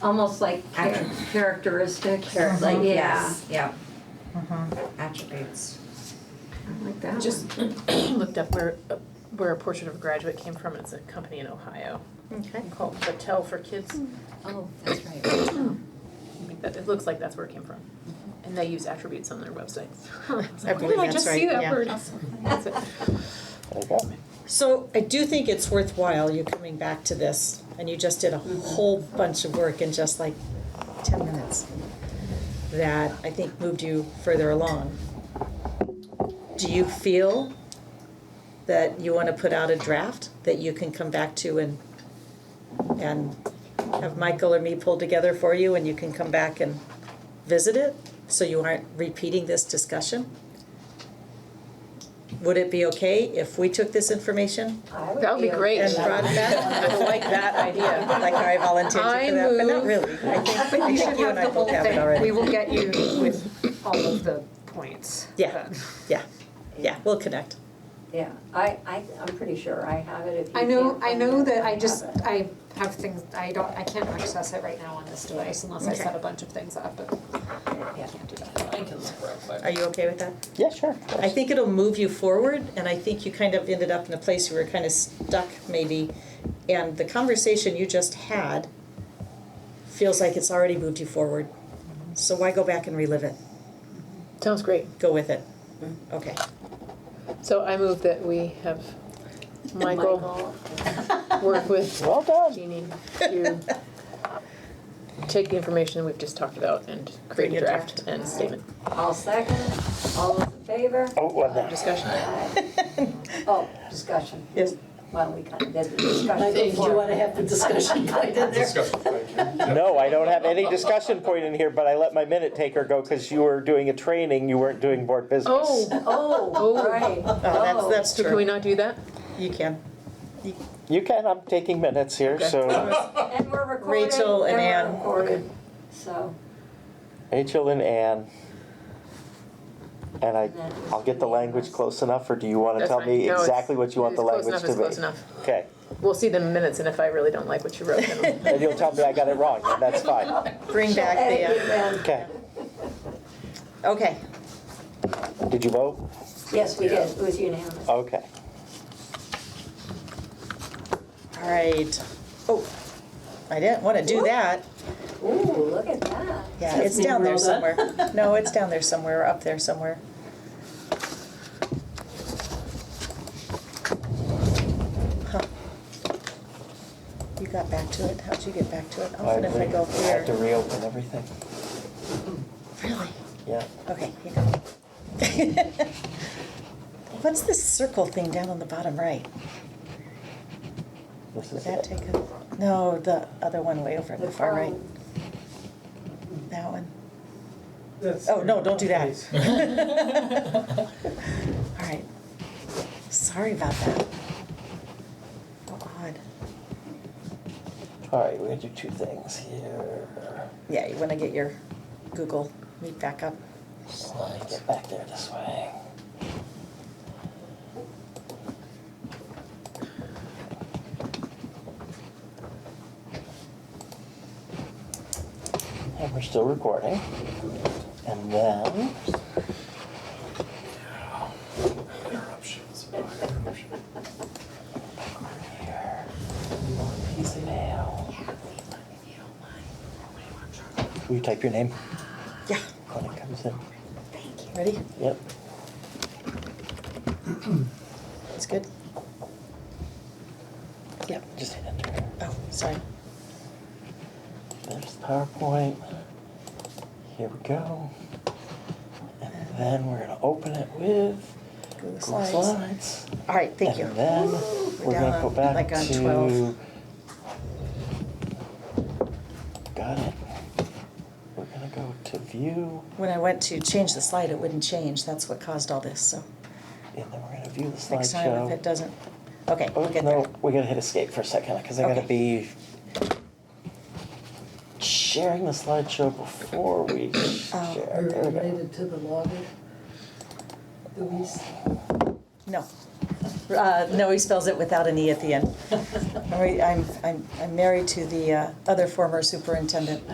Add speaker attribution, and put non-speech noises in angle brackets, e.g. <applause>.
Speaker 1: almost like char- characteristics.
Speaker 2: Character-
Speaker 3: Mm-hmm.
Speaker 1: Like, yeah,
Speaker 2: yes, Yep. Attributes.
Speaker 1: I like that
Speaker 4: Just
Speaker 1: one.
Speaker 4: looked up where, uh, where a portrait of a graduate came from, it's a company in Ohio
Speaker 5: Okay.
Speaker 4: called Battelle for Kids.
Speaker 2: Oh, that's right.
Speaker 4: I think that, <coughs> it looks like that's where it came from. And they use attributes on their website. It's
Speaker 5: I
Speaker 4: like, Where
Speaker 5: believe
Speaker 4: did <laughs> I
Speaker 5: that's
Speaker 4: just
Speaker 5: right,
Speaker 4: see that
Speaker 5: yeah.
Speaker 4: word? That's it.
Speaker 6: There you go.
Speaker 5: So I do think it's worthwhile you coming back to this, and you just did a whole bunch of work in just like ten minutes. That I think moved you further along. Do you feel that you wanna put out a draft that you can come back to and and have Michael or me pull together for you and you can come back and visit it? So you aren't repeating this discussion? Would it be okay if we took this information
Speaker 4: That would be great.
Speaker 5: and brought it back.
Speaker 4: I like that idea.
Speaker 5: Like I volunteered
Speaker 4: I
Speaker 5: for that, but
Speaker 4: move-
Speaker 5: not really. I think,
Speaker 2: But
Speaker 5: I
Speaker 2: you
Speaker 5: think
Speaker 2: should
Speaker 5: you and
Speaker 2: have
Speaker 5: I
Speaker 2: the whole
Speaker 5: both have it
Speaker 2: thing. We
Speaker 5: already.
Speaker 2: will get you with all of the points.
Speaker 5: Yeah, yeah, yeah, we'll connect.
Speaker 3: Yeah, I, I, I'm pretty sure I have it if you
Speaker 2: I know,
Speaker 3: can't
Speaker 2: I
Speaker 3: find
Speaker 2: know
Speaker 3: it,
Speaker 2: that I
Speaker 3: have
Speaker 2: just,
Speaker 3: it.
Speaker 2: I have things, I don't, I can't access it right now on this device unless I set a bunch of things up, but I can't do that.
Speaker 4: I can look real quick.
Speaker 5: Are you okay with that?
Speaker 6: Yeah, sure.
Speaker 5: I think it'll move you forward and I think you kind of ended up in a place where you were kind of stuck maybe. And the conversation you just had feels like it's already moved you forward. So why go back and relive it?
Speaker 4: Sounds great.
Speaker 5: Go with it.
Speaker 4: Mm-hmm.
Speaker 5: Okay.
Speaker 4: So I move that we have Michael
Speaker 3: Michael,
Speaker 4: work with
Speaker 6: Well done.
Speaker 4: Jeannie to take the information we've just talked about and create
Speaker 5: Create
Speaker 4: a
Speaker 5: a
Speaker 4: draft and statement.
Speaker 3: I'll second, all those in
Speaker 5: <laughs>
Speaker 3: favor?
Speaker 6: <laughs> Oh, well done.
Speaker 4: Discussion?
Speaker 3: Oh, discussion.
Speaker 5: Yes.
Speaker 3: Well, we kind of did the discussion
Speaker 7: Michael, do you
Speaker 3: before.
Speaker 7: wanna have the discussion point in there?
Speaker 6: No, I don't have any discussion point in here, but I let my minute taker go because you were doing a training, you weren't doing board business.
Speaker 4: Oh,
Speaker 3: Oh,
Speaker 4: Oh.
Speaker 3: right.
Speaker 5: <laughs> Oh, that's, that's
Speaker 4: so can we
Speaker 5: true.
Speaker 4: not do that? <laughs>
Speaker 5: You can.
Speaker 6: You can, I'm taking minutes here, so
Speaker 3: Oh, And we're recorded.
Speaker 5: Rachel and Ann.
Speaker 3: we're recorded, so.
Speaker 6: Rachel and Ann. And I, I'll get the language close enough, or do you want to
Speaker 4: That's
Speaker 6: tell
Speaker 4: fine.
Speaker 6: me
Speaker 4: No, it's-
Speaker 6: exactly what you want
Speaker 4: it's
Speaker 6: the
Speaker 4: close
Speaker 6: language to
Speaker 4: enough,
Speaker 6: be?
Speaker 4: it's close enough.
Speaker 6: Okay,
Speaker 4: We'll see the minutes, and if I really don't like what you wrote, then
Speaker 6: and you'll tell me I got it wrong, and that's fine.
Speaker 5: Bring back the,
Speaker 3: Edit it
Speaker 5: uh,
Speaker 3: then.
Speaker 6: Okay,
Speaker 5: okay.
Speaker 6: did you vote?
Speaker 3: Yes, we did, it was unanimous.
Speaker 6: Okay.
Speaker 5: All right. Oh, I didn't want to do that.
Speaker 3: Ooh, look at that.
Speaker 5: Yeah, it's
Speaker 7: Tiffany
Speaker 5: down there
Speaker 7: rolled
Speaker 5: somewhere.
Speaker 7: up.
Speaker 3: <laughs>
Speaker 5: No, it's down there somewhere, or up there somewhere. Huh. You got back to it? How'd you get back to it? Often if I go
Speaker 6: I have to
Speaker 5: here.
Speaker 6: reopen everything.
Speaker 5: Really?
Speaker 6: Yeah.
Speaker 5: Okay, here you go. <laughs> What's this circle thing down on the bottom right?
Speaker 6: This
Speaker 5: Would
Speaker 6: is
Speaker 5: that
Speaker 6: it.
Speaker 5: take a, no, the other one way over in the far right.
Speaker 3: phone.
Speaker 5: That one.
Speaker 8: That's
Speaker 5: Oh, no, don't do that.
Speaker 8: Please.
Speaker 5: <laughs> All right. Sorry about that. How odd.
Speaker 6: All right, we're gonna do two things here.
Speaker 5: Yeah, you want to get your Google Meet back up.
Speaker 6: Slide, get back there this way. And we're still recording. And then,
Speaker 8: Interruptions.
Speaker 6: here, one piece of mail. Will you type your name
Speaker 5: Yeah.
Speaker 6: when it comes in?
Speaker 5: Ready?
Speaker 6: Yep.
Speaker 5: That's good. Yep.
Speaker 6: Just hit enter.
Speaker 5: Oh, sorry.
Speaker 6: There's the PowerPoint. Here we go. And then we're gonna open it with
Speaker 5: Google
Speaker 6: Google
Speaker 5: Slides.
Speaker 6: Slides.
Speaker 5: All right, thank you.
Speaker 6: And then we're gonna
Speaker 5: down
Speaker 6: go
Speaker 5: on-
Speaker 6: back
Speaker 5: like on
Speaker 6: to.
Speaker 5: 12.
Speaker 6: Got it. We're gonna go to view,
Speaker 5: When I went to change the slide, it wouldn't change. That's what caused all this. So
Speaker 6: and then we're gonna view the
Speaker 5: next time, if
Speaker 6: slideshow.
Speaker 5: it doesn't, okay,
Speaker 6: Oh,
Speaker 5: we'll get there.
Speaker 6: no, we gotta hit escape for a second, cause I gotta be sharing the slideshow before we
Speaker 5: Oh.
Speaker 6: share. There we go.
Speaker 7: Related to the logger, Louise.
Speaker 5: No. Uh, no, he spells it without an E at the end. I'm, I'm, I'm married to the uh, other former superintendent.